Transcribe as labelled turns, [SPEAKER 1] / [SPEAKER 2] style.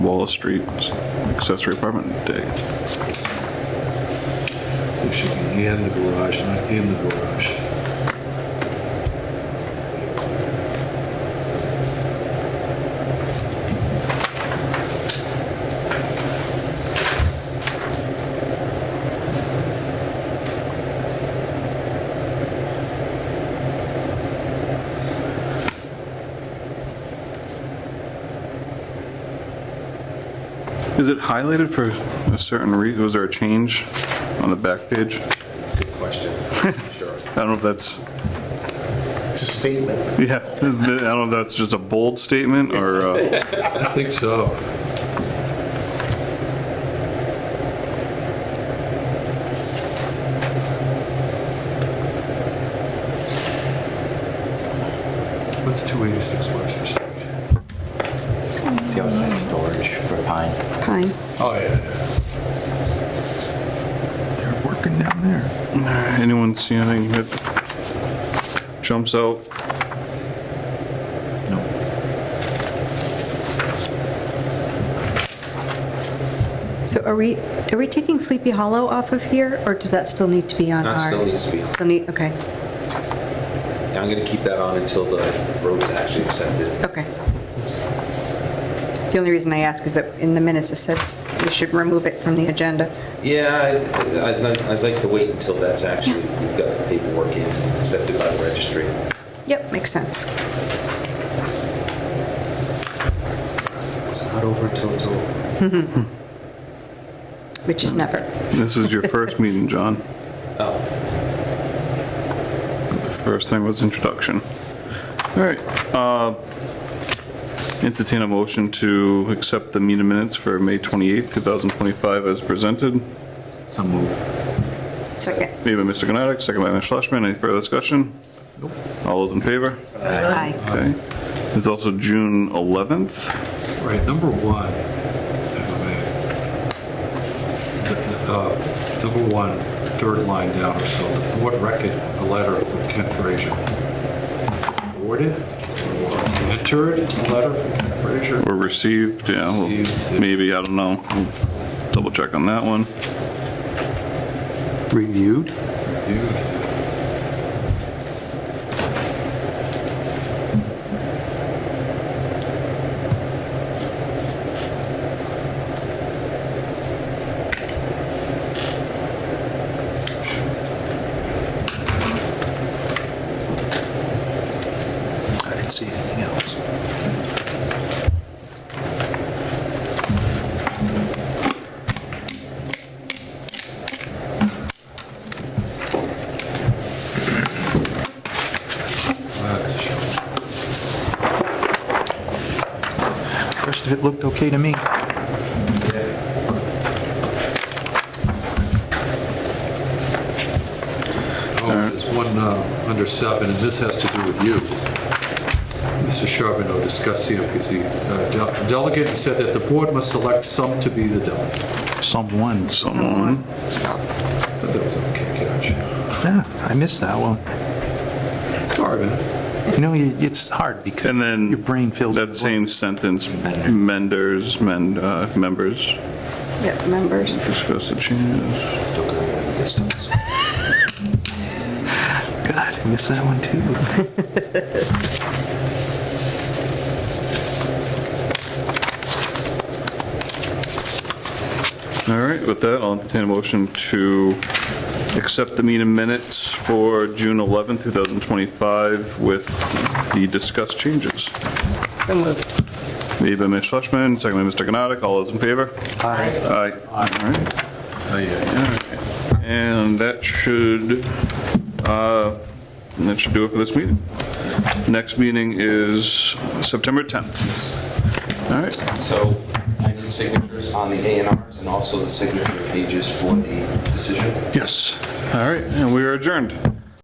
[SPEAKER 1] Lola Street accessory apartment day.
[SPEAKER 2] There should be in the garage, not in the garage.
[SPEAKER 1] Is it highlighted for a certain reason? Was there a change on the back page?
[SPEAKER 3] Good question. Sure.
[SPEAKER 1] I don't know if that's,
[SPEAKER 3] It's a statement.
[SPEAKER 1] yeah, I don't know if that's just a bold statement or, uh,
[SPEAKER 2] I think so. What's 286 Webster Street?
[SPEAKER 4] It's the outside storage for pine.
[SPEAKER 5] Fine.
[SPEAKER 2] Oh, yeah. They're working down there.
[SPEAKER 1] anyone see anything that jumps out?
[SPEAKER 5] So are we, are we taking Sleepy Hollow off of here, or does that still need to be on our?
[SPEAKER 3] That still needs to be.
[SPEAKER 5] Still need, okay,
[SPEAKER 3] I'm going to keep that on until the road's actually accepted.
[SPEAKER 5] okay. The only reason I ask is that in the minutes it says we should remove it from the agenda.
[SPEAKER 3] Yeah, I- I'd like- I'd like to wait until that's actually, we've got the paperwork in, it's accepted by the registry.
[SPEAKER 5] Yep, makes sense.
[SPEAKER 3] It's not over until it's over.
[SPEAKER 5] Which is never.
[SPEAKER 1] This is your first meeting, John.
[SPEAKER 3] Oh,
[SPEAKER 1] The first thing was introduction. All right, uh, entertain a motion to accept the meeting minutes for May 28th, 2025 as presented.
[SPEAKER 4] So move.
[SPEAKER 5] Second.
[SPEAKER 1] Made by Mr. Gnatic, second by Mr. Schlesman. Any further discussion? All those in favor?
[SPEAKER 5] Aye.
[SPEAKER 1] Okay. There's also June 11th.
[SPEAKER 2] Right, number one. if I may. The- the, uh, Number one, third line down or so, the board record a letter from Kent Frazier. Awarded or entered a letter from Kent Frazier.
[SPEAKER 1] Or received, yeah, well,
[SPEAKER 2] Received.
[SPEAKER 1] maybe, I don't know. We'll Double check on that one.
[SPEAKER 6] Reviewed?
[SPEAKER 2] Reviewed.
[SPEAKER 6] I didn't see anything else.
[SPEAKER 2] That's oh, a shame.
[SPEAKER 6] Rest of it looked okay to me.
[SPEAKER 2] Oh, there's one uh, under seven, and this has to do with you. Mr. Charbonneau discussed CMPC. Uh, de- Delegate said that the board must select some to be the delegate.
[SPEAKER 6] Someone.
[SPEAKER 1] Someone.
[SPEAKER 2] I thought that was okay catch.
[SPEAKER 6] Yeah, I missed that one.
[SPEAKER 2] Sorry, man.
[SPEAKER 6] You know, you- it's hard because
[SPEAKER 1] And then.
[SPEAKER 6] your brain fills. in
[SPEAKER 1] That
[SPEAKER 6] the
[SPEAKER 1] same sentence, menders, men, uh, members,
[SPEAKER 5] Yep, members.
[SPEAKER 1] discuss the changes.
[SPEAKER 6] blank. God, I missed that one too.
[SPEAKER 1] All right, with that, I'll entertain a motion to accept the meeting minutes for June 11th, 2025 with the discussed changes.
[SPEAKER 5] So moved.
[SPEAKER 1] Made by Ms. Schlesman, second by Mr. Gnotik. All those in favor?
[SPEAKER 6] Aye.
[SPEAKER 1] Aye. All right. And that should, uh, that should do it for this meeting. Next meeting is September 10th. All right,
[SPEAKER 3] so I need signatures on the A and Rs and also the signature pages for the decision.
[SPEAKER 1] yes. All right, and we are adjourned.